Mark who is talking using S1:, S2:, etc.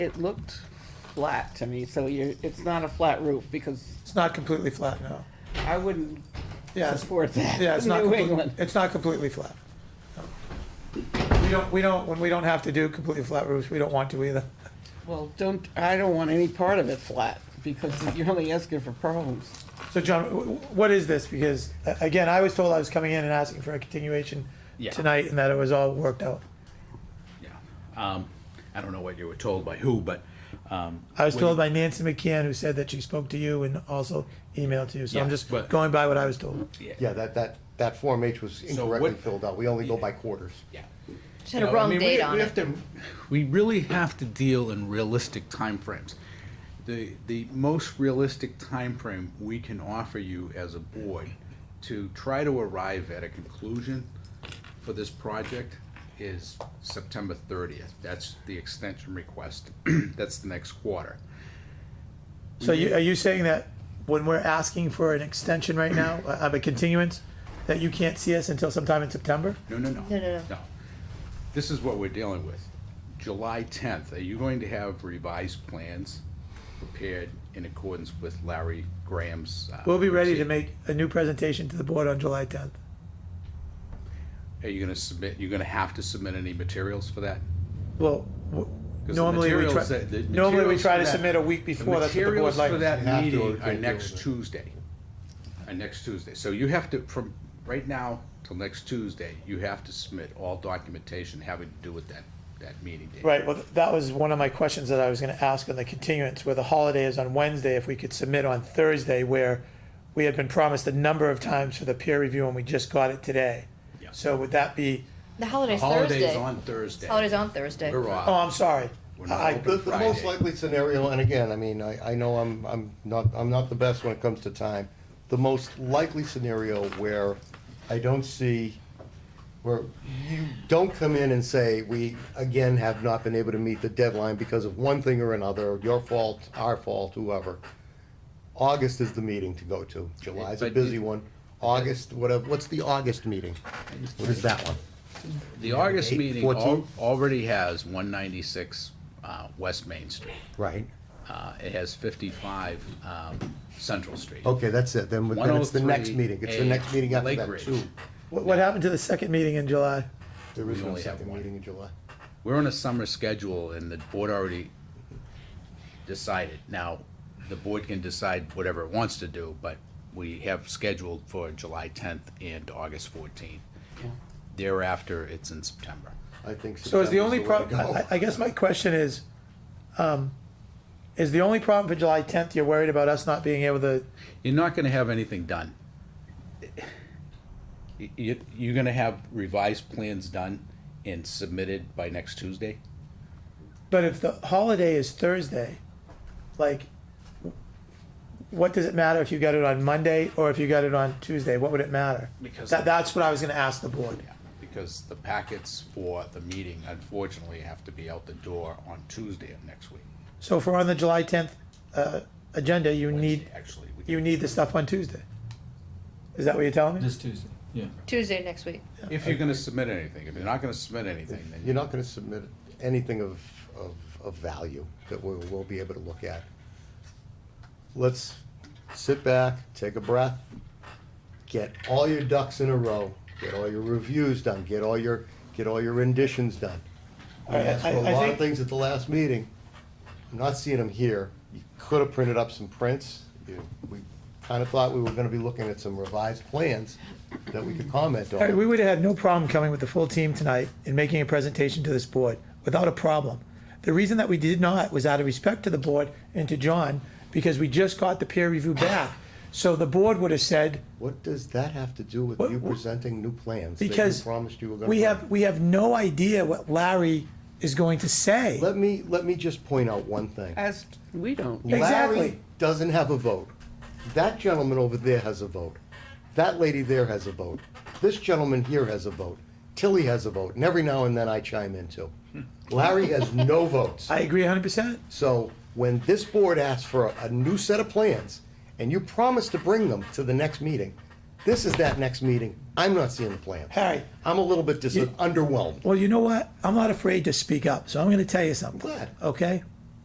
S1: it looked flat to me, so you're, it's not a flat roof, because
S2: It's not completely flat, no.
S1: I wouldn't
S2: Yeah, it's-
S1: support that
S2: yeah, it's
S1: in
S2: not,
S1: New
S2: complete-
S1: England.
S2: it's not completely flat. We don't, we don't, when we don't have to do completely flat roofs, we don't want to either.
S1: Well, don't, I don't want any part of it flat, because you're only asking for problems.
S2: So John, wh- wh- what is this? Because a- again, I was told I was coming in and asking for a continuation
S3: Yeah.
S2: tonight and that it was all worked out.
S3: Yeah. Um, I don't know what you were told by who, but, um,
S2: I was
S3: When-
S2: told by Nancy McCann, who said that she spoke to you and also emailed to you. So I'm
S3: Yeah,
S2: just
S3: but-
S2: going by what I was told.
S4: Yeah, that, that, that Form H was incorrectly
S3: what-
S4: filled out. We only go by quarters.
S3: yeah.
S5: Just had a
S3: You know, I
S5: wrong
S3: mean, we-
S5: date on
S3: we
S5: it.
S3: have to- We really have to deal in realistic timeframes. The, the most realistic timeframe we can offer you as a board to try to arrive at a conclusion for this project is September thirtieth. That's the extension request. That's the next quarter.
S2: So you, are you saying that when we're asking for an extension right now, uh, of a continuance, that you can't see us until sometime in September?
S3: No, no, no.
S5: No, no, no.
S3: This is what we're dealing with. July tenth, are you going to have revised plans prepared in accordance with Larry Graham's? uh,
S2: We'll be ready to make a new presentation to the board on July tenth.
S3: Are you gonna submit, you're gonna have to submit any materials for that?
S2: Well, w-
S3: 'Cause the
S2: normally we try,
S3: materials that- the
S2: normally we
S3: materials
S2: try
S3: for
S2: to
S3: that-
S2: submit a week
S3: The
S2: before, that's what the board
S3: materials for
S2: likes.
S3: that
S4: You have to or you
S3: meeting are
S4: can't deal
S3: next
S4: with it.
S3: Tuesday, are next Tuesday. So you have to, from right now till next Tuesday, you have to submit all documentation having to do with that, that meeting date.
S2: Right, well, that was one of my questions that I was gonna ask on the continuance, where the holiday is on Wednesday, if we could submit on Thursday, where we had been promised a number of times for the peer review and we just got it today.
S3: Yeah.
S2: So would that be,
S5: The holiday's
S3: Holidays
S5: Thursday.
S3: on Thursday.
S5: Holidays on Thursday.
S3: We're off.
S2: oh, I'm sorry.
S3: We're not
S2: I,
S3: open.
S4: The, the most
S3: Friday.
S4: likely scenario, and again, I mean, I, I know I'm, I'm not, I'm not the best when it comes to time. The most likely scenario where I don't see, where you don't come in and say, we again have not been able to meet the deadline because of one thing or another, your fault, our fault, whoever. August is the meeting to go to. July's a
S3: But
S4: busy
S3: you-
S4: one. August, whatever, what's the August meeting? What is that one?
S3: The August
S4: Eight,
S3: meeting
S4: 14?
S3: al- already has one ninety-six, uh, West Main Street.
S4: Right.
S3: Uh, it has fifty-five, um, Central Street.
S4: Okay, that's it, then, then it's the next
S3: 103
S4: meeting, it's the next meeting after
S3: Lake
S4: that,
S3: Ridge.
S4: too.
S2: what, what happened to the second meeting in July?
S4: There is
S3: We
S4: no
S3: only have
S4: second
S3: one.
S4: meeting in July.
S3: We're on a summer schedule and the board already decided. Now, the board can decide whatever it wants to do, but we have scheduled for July tenth and August fourteenth. Thereafter, it's in September.
S4: I think
S2: So is the
S4: September's
S2: only
S4: the way to
S2: problem,
S4: go.
S2: I, I guess my question is, um, is the only problem for July tenth, you're worried about us not being able to,
S3: you're not gonna have anything done. You, you're gonna have revised plans done and submitted by next Tuesday?
S2: but if the holiday is Thursday, like, what does it matter if you got it on Monday or if you got it on Tuesday? What would it matter?
S3: Because-
S2: That, that's what I was gonna ask the board.
S3: Because the packets for the meeting unfortunately have to be out the door on Tuesday of next week.
S2: So if we're on the July tenth, uh, agenda, you need,
S3: Wednesday, Actually, we
S2: you need the stuff on Tuesday. Is that what you're telling me?
S6: This Tuesday, yeah.
S5: Tuesday next week.
S3: if you're gonna submit anything, if you're not gonna submit anything, then
S4: You're not gonna submit anything of, of, of value that we'll, we'll be able to look at. Let's sit back, take a breath, get all your ducks in a row, get all your reviews done, get all your, get all your renditions done. We
S2: All right,
S4: asked for
S2: I-
S4: a
S2: I
S4: lot of
S2: think-
S4: things at the last meeting. I'm not seeing them here. You could have printed up some prints. You- We kind of thought we were gonna be looking at some revised plans that we could comment
S2: All right, we
S4: on.
S2: would have had no problem coming with the full team tonight and making a presentation to this board without a problem. The reason that we did not was out of respect to the board and to John, because we just got the peer review back. So the board would have said,
S4: What does that have to do with
S2: What-
S4: you presenting new plans that you
S2: because
S4: promised you were gonna?
S2: we
S4: bring?
S2: have, we have no idea what Larry is going to say.
S4: Let me, let me just point out one thing.
S1: As, we don't.
S2: Exactly.
S4: Larry doesn't have a vote. That gentleman over there has a vote. That lady there has a vote. This gentleman here has a vote. Tilly has a vote, and every now and then I chime in too. Larry has no votes.
S2: Hmm. I agree hundred percent.
S4: So when this board asks for a, a new set of plans, and you promise to bring them to the next meeting, this is that next meeting. I'm not seeing the plan.
S2: Harry.
S4: I'm a little bit dis-
S2: You-
S4: underwhelmed.
S2: Well, you know what? I'm not afraid to speak up, so I'm gonna tell you something.
S4: glad.
S2: Okay?